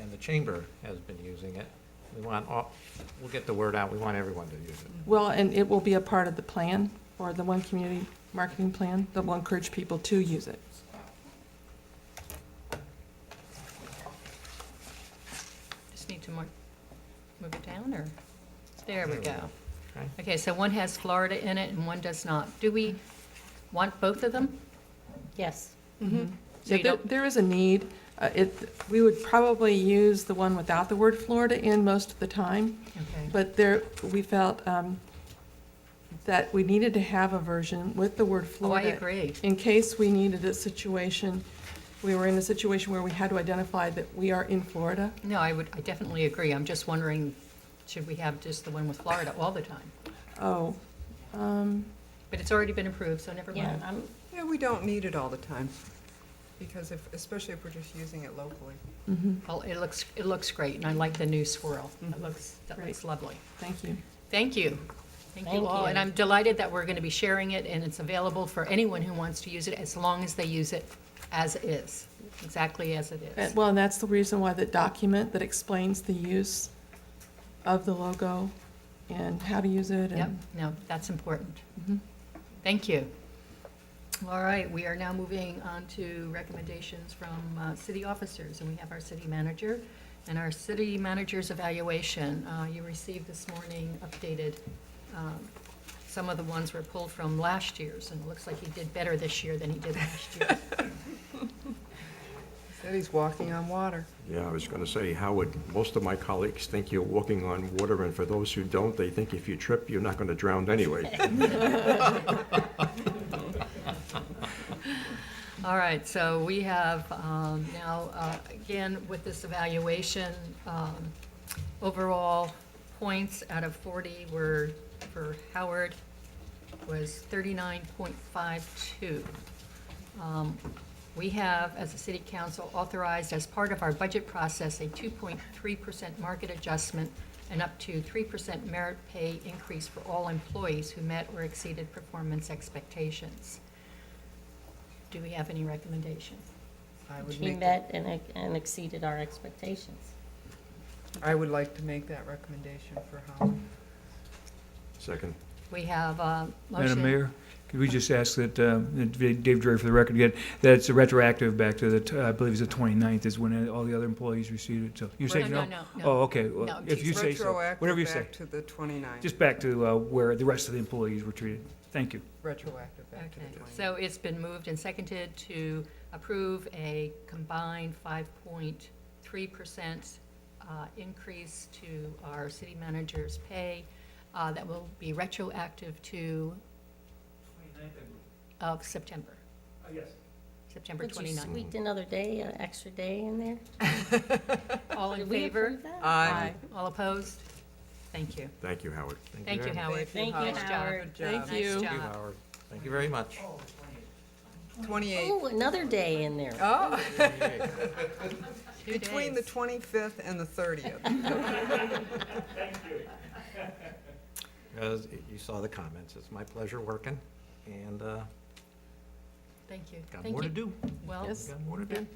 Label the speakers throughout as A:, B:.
A: and the chamber has been using it. We want, all- we'll get the word out, we want everyone to use it.
B: Well, and it will be a part of the plan, or the one community marketing plan, that will encourage people to use it.
C: Just need to mark, move it down, or, there we go.
A: Okay.
C: Okay, so one has Florida in it and one does not. Do we want both of them? Mm-hmm.
D: Yes.
C: So you
B: Yeah, there-
C: don't-
B: There is a need. Uh, It, we would probably use the one without the word Florida in most of the time,
C: Okay,
B: but there, we felt um, that we needed to have a version with the word
C: oh, I
B: Florida.
C: agree.
B: In case we needed a situation, we were in a situation where we had to identify that we are in Florida.
C: No, I would, I definitely agree. I'm just wondering, should we have just the one with Florida all the time?
B: Oh, um,
C: But it's already been approved, so never
D: Yeah,
C: mind.
D: I'm,
E: Yeah, we don't need it all the time, because if, especially if we're just using it locally.
B: mhm,
C: Well, it looks, it looks great, and I like the new swirl. That looks, that looks lovely.
B: thank you.
C: Thank you. Thank you
D: Thank
C: all, and
D: you.
C: I'm delighted that we're going to be sharing it, and it's available for anyone who wants to use it, as long as they use it as is, exactly as it
B: And-
C: is.
B: Well, and that's the reason why the document that explains the use of the logo and how to use it
C: Yep,
B: and.
C: no, that's important.
B: Mhm.
C: Thank you. Mm-hmm. All right, we are now moving on to recommendations from uh, city officers, and we have our city manager and our city manager's evaluation. Uh, You received this morning updated, um, some of the ones were pulled from last year's, and it looks like he did better this year than he did last year.
E: Said he's walking on water.
F: Yeah, I was going to say, Howard, most of my colleagues think you're walking on water, and for those who don't, they think if you trip, you're not going to drown anyway.
C: All right, so we have um, now, uh, again, with this evaluation, um, overall points out of 40 were, for Howard, was 39.52. Um, We have, as a city council, authorized as part of our budget process, a 2.3% market adjustment and up to 3% merit pay increase for all employees who met or exceeded performance expectations. Do we have any recommendations?
E: I would
D: she
E: make,
D: met and and exceeded our expectations.
E: that- I would like to make that recommendation for Howard.
F: Second.
C: We have a motion.
G: Madam Mayor, could we just ask that, uh, that Dave Dreher for the record, get, that it's retroactive back to the, t- I believe it's the 29th is when all the other employees received it, so, you say
C: No,
G: no?
C: no,
G: Oh,
C: no,
G: okay,
C: No,
G: well, if you
C: geez.
G: say so, whatever you say,
E: Retroactive back to the 29th.
G: just back to, uh, where the rest of the employees were treated, thank you.
E: Retroactive back to
C: Okay,
E: the 29th.
C: so it's been moved and seconded to approve a combined 5.3% uh, increase to our city manager's pay uh, that will be retroactive to? Of September. Yes. September
D: Would you
C: 29th.
A: Mm-hmm.
D: squeak another day, an extra day in there?
C: All in
D: Did we
C: favor?
D: approve that?
E: Aye.
C: All opposed? Thank you.
F: Thank you, Howard.
C: Thank you,
A: very much.
C: Howard.
D: Thank you,
E: Howard.
C: Nice job.
D: Howard.
E: Good
B: Thank
E: job.
B: you.
A: Thank
C: Nice
A: you,
C: job.
A: Howard. Thank you very much.
E: 28,
D: Oh, another day in there.
E: oh,
C: Two
E: between the
C: days.
E: 25th and the 30th.
A: As you saw the comments, it's my pleasure working, and uh,
C: Thank you.
A: got
C: Thank
A: more to
C: you.
A: do.
C: Well,
B: Yes.
A: Got more to do.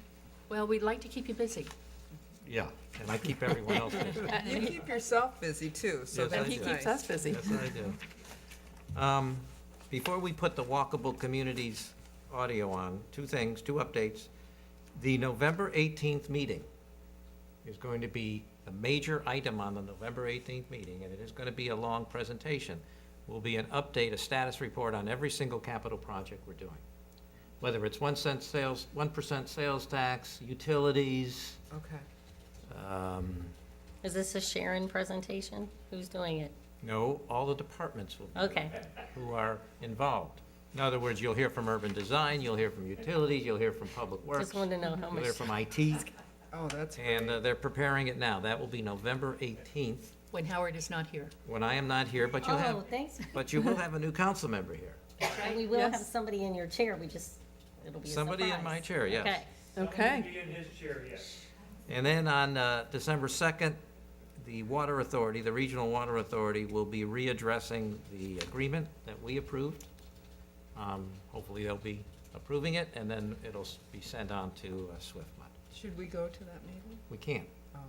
C: well, we'd like to keep you busy.
A: Yeah, and I keep everyone else busy.
E: You keep yourself busy too, so
A: Yes, I
E: that's
B: And
E: nice.
B: he keeps us busy.
A: Yes, I do. Um, Before we put the walkable communities audio on, two things, two updates. The November 18th meeting is going to be a major item on the November 18th meeting, and it is going to be a long presentation. Will be an update, a status report on every single capital project we're doing. Whether it's one cent sales, 1% sales tax, utilities,
E: Okay.
A: um,
D: Is this a Sharon presentation? Who's doing it?
A: no, all the departments will be
D: Okay,
A: who are involved. In other words, you'll hear from urban design, you'll hear from utilities, you'll hear from public works,
D: just
A: you'll
D: wanted to know how much.
A: hear from IT,
E: Oh, that's
A: and
E: great.
A: uh, they're preparing it now. That will be November 18th,
C: when Howard is not here.
A: when I am not here, but you'll
D: Oh,
A: have,
D: thanks.
A: but you will have a new council member here.
D: And We will have somebody in your chair, we just, it'll be a surprise.
A: Somebody in my chair, yes.
D: Okay.
B: Okay.
A: And then on uh, December 2nd, the Water Authority, the Regional Water Authority, will be readdressing the agreement that we approved. Um, Hopefully, they'll be approving it, and then it'll s- be sent on to uh, SWIFMUD.
E: Should we go to that meeting?
A: We can't.